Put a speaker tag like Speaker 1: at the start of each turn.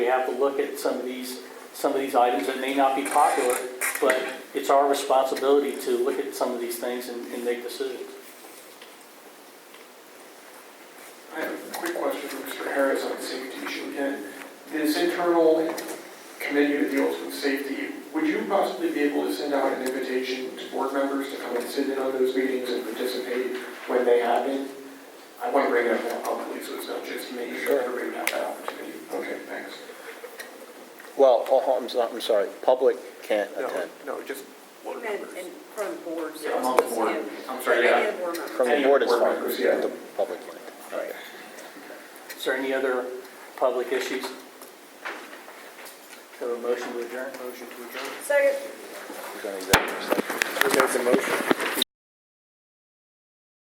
Speaker 1: have to look at some of these, some of these items that may not be popular, but it's our responsibility to look at some of these things and, and make decisions.
Speaker 2: I have a quick question for Mr. Harris on safety issue again. This internal committee that deals with safety, would you possibly be able to send out an invitation to board members to come and sit in on those meetings and participate when they happen? I want to bring it up publicly, so it's not just me, so everybody would have that opportunity. Okay, thanks.
Speaker 3: Well, oh, I'm, so- I'm sorry, public can't attend.
Speaker 2: no, just.
Speaker 4: He meant in front of boards.
Speaker 2: Yeah, among the board. I'm sorry,
Speaker 4: Any
Speaker 2: yeah.
Speaker 4: of the board members.
Speaker 3: From the
Speaker 2: Any
Speaker 3: board is
Speaker 2: board
Speaker 3: fine,
Speaker 2: members, yeah.
Speaker 3: but the public can't.
Speaker 1: Is there any other public issues? So a motion to adjourn? Motion to adjourn.
Speaker 4: Second.
Speaker 3: We're going to executive session.